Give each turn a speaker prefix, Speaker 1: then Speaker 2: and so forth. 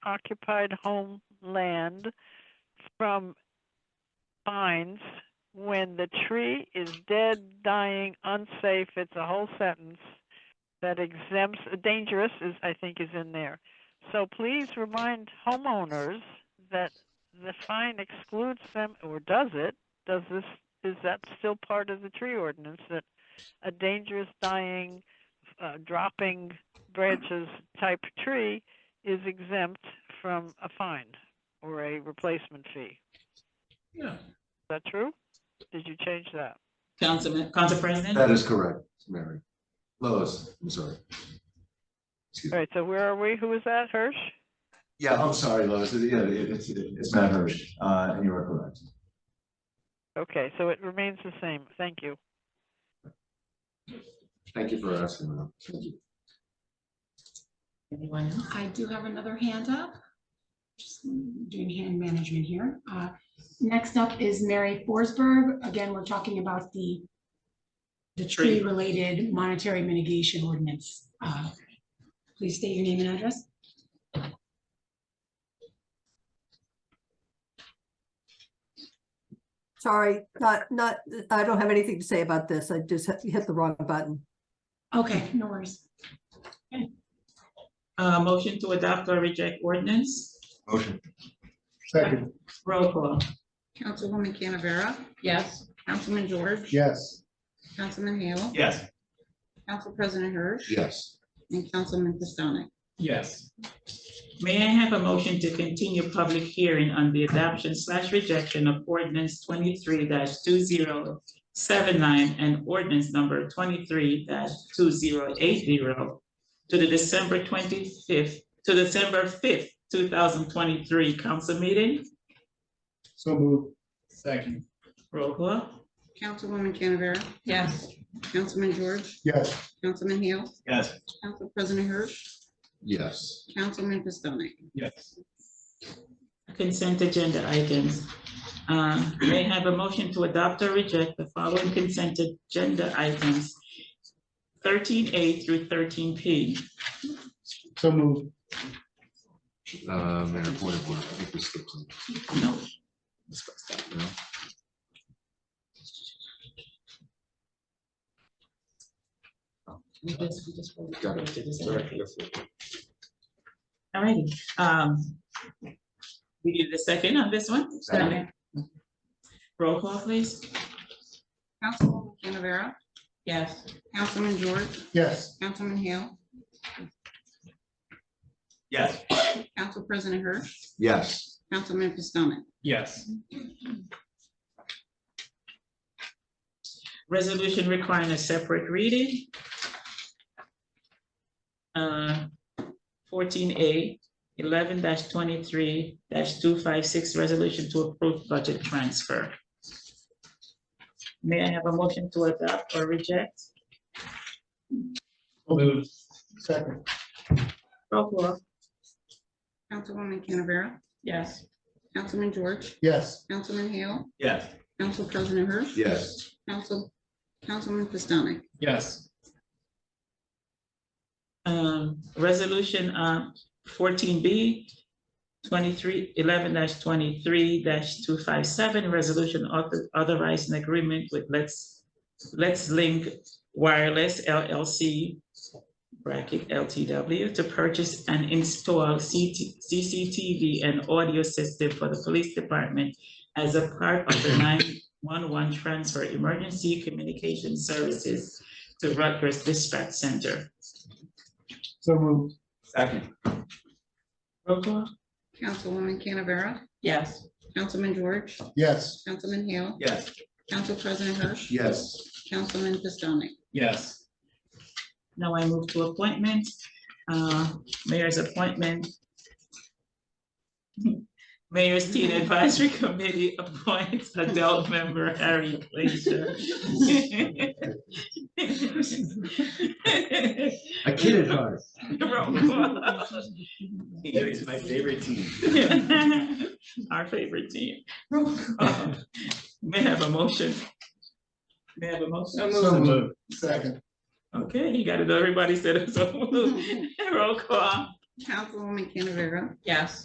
Speaker 1: occupied homeland from vines when the tree is dead, dying, unsafe, it's a whole sentence that exempts, dangerous is, I think, is in there. So please remind homeowners that the fine excludes them, or does it? Does this, is that still part of the tree ordinance that a dangerous, dying, uh, dropping branches type tree is exempt from a fine or a replacement fee?
Speaker 2: Yeah.
Speaker 1: Is that true? Did you change that?
Speaker 2: Councilman, Council President,
Speaker 3: That is correct, Mary. Lois, I'm sorry. Excuse
Speaker 1: All
Speaker 3: me.
Speaker 1: right, so where are we? Who was that? Hirsch?
Speaker 3: Yeah, I'm sorry, Lois. It- Yeah, it- it's, it's Matt Hirsch, uh, and you are correct.
Speaker 1: Okay, so it remains the same. Thank you.
Speaker 3: Thank you for asking that. Thank you.
Speaker 2: anyone else?
Speaker 4: I do have another hand up. Just doing hand management here. Uh, Next up is Mary Forsberg. Again, we're talking about the
Speaker 2: The tree,
Speaker 4: tree-related monetary mitigation ordinance. Uh, Please state your name and address.
Speaker 5: Sorry, not, not, I don't have anything to say about this. I just hit hit the wrong button.
Speaker 4: Okay, no worries.
Speaker 2: uh, motion to adopt or reject ordinance,
Speaker 3: Motion.
Speaker 6: Second,
Speaker 2: roll call.
Speaker 7: Councilwoman Canavera?
Speaker 2: Yes.
Speaker 7: Councilman George?
Speaker 6: yes,
Speaker 7: Councilman Hale?
Speaker 2: Yes.
Speaker 7: Council President Hirsch?
Speaker 3: Yes.
Speaker 7: And Councilman Pistonik?
Speaker 2: Yes. May I have a motion to continue public hearing on the adoption slash rejection of ordinance twenty-three two zero seven nine and ordinance number twenty-three two zero eight zero to the December twenty-fifth, to December fifth, two thousand twenty-three council meeting,
Speaker 6: so moved. Second.
Speaker 2: roll call.
Speaker 7: Councilwoman Canavera?
Speaker 2: Yes.
Speaker 7: Councilman George?
Speaker 6: Yes,
Speaker 7: Councilman Hale?
Speaker 6: yes,
Speaker 7: Council President Hirsch?
Speaker 3: Yes.
Speaker 7: Councilman Pistonik?
Speaker 6: yes,
Speaker 2: Consent agenda items. Uh, May I have a motion to adopt or reject the following consent agenda items. Thirteen A through thirteen P.
Speaker 6: so moved.
Speaker 3: Uh, Mayor, point of order, I think we skipped some.
Speaker 2: No,
Speaker 3: no?
Speaker 2: we just, we just.
Speaker 3: Got it. Sorry, yes, yes.
Speaker 2: All righty, um. We need a second on this one?
Speaker 3: Second.
Speaker 2: Roll call, please.
Speaker 7: Councilwoman Canavera?
Speaker 2: Yes.
Speaker 7: Councilman George?
Speaker 6: Yes,
Speaker 7: Councilman Hale?
Speaker 8: Yes,
Speaker 7: Council President Hirsch?
Speaker 3: Yes.
Speaker 7: Councilman Pistonik?
Speaker 6: yes,
Speaker 2: Resolution requiring a separate reading. Uh, fourteen A, eleven twenty-three two five six, resolution to approve budget transfer. May I have a motion to adopt or reject?
Speaker 6: so moved. Second,
Speaker 2: Roll call.
Speaker 7: Councilwoman Canavera?
Speaker 2: Yes.
Speaker 7: Councilman George?
Speaker 6: yes,
Speaker 7: Councilman Hale?
Speaker 8: yes,
Speaker 7: Council President Hirsch?
Speaker 3: Yes.
Speaker 7: Council, Councilman Pistonik?
Speaker 6: yes,
Speaker 2: Um, resolution, uh, fourteen B, twenty-three, eleven twenty-three two five seven, resolution author- authorizing agreement with Let's, Let's Link Wireless LLC, bracket LTW, to purchase and install CT CCTV and audio system for the police department as a part of the nine-one-one transfer emergency communication services to Rutgers Dispatch Center.
Speaker 6: so moved.
Speaker 8: second,
Speaker 2: Roll call?
Speaker 7: Councilwoman Canavera?
Speaker 2: Yes.
Speaker 7: Councilman George?
Speaker 6: Yes,
Speaker 7: Councilman Hale?
Speaker 8: yes,
Speaker 7: Council President Hirsch?
Speaker 3: Yes.
Speaker 7: Councilman Pistonik?
Speaker 6: yes,
Speaker 2: Now I move to appointment, uh, mayor's appointment. Mayor's Teen Advisory Committee appoints adult member Harry Glazer.
Speaker 3: I kid it hard.
Speaker 2: Roll call.
Speaker 8: it is my favorite team.
Speaker 2: Our favorite team. Roll call. May I have a motion? May I have a motion?
Speaker 6: so moved. Second,
Speaker 2: Okay, you got it, everybody said it, so moved. roll call.
Speaker 7: Councilwoman Canavera?
Speaker 2: yes.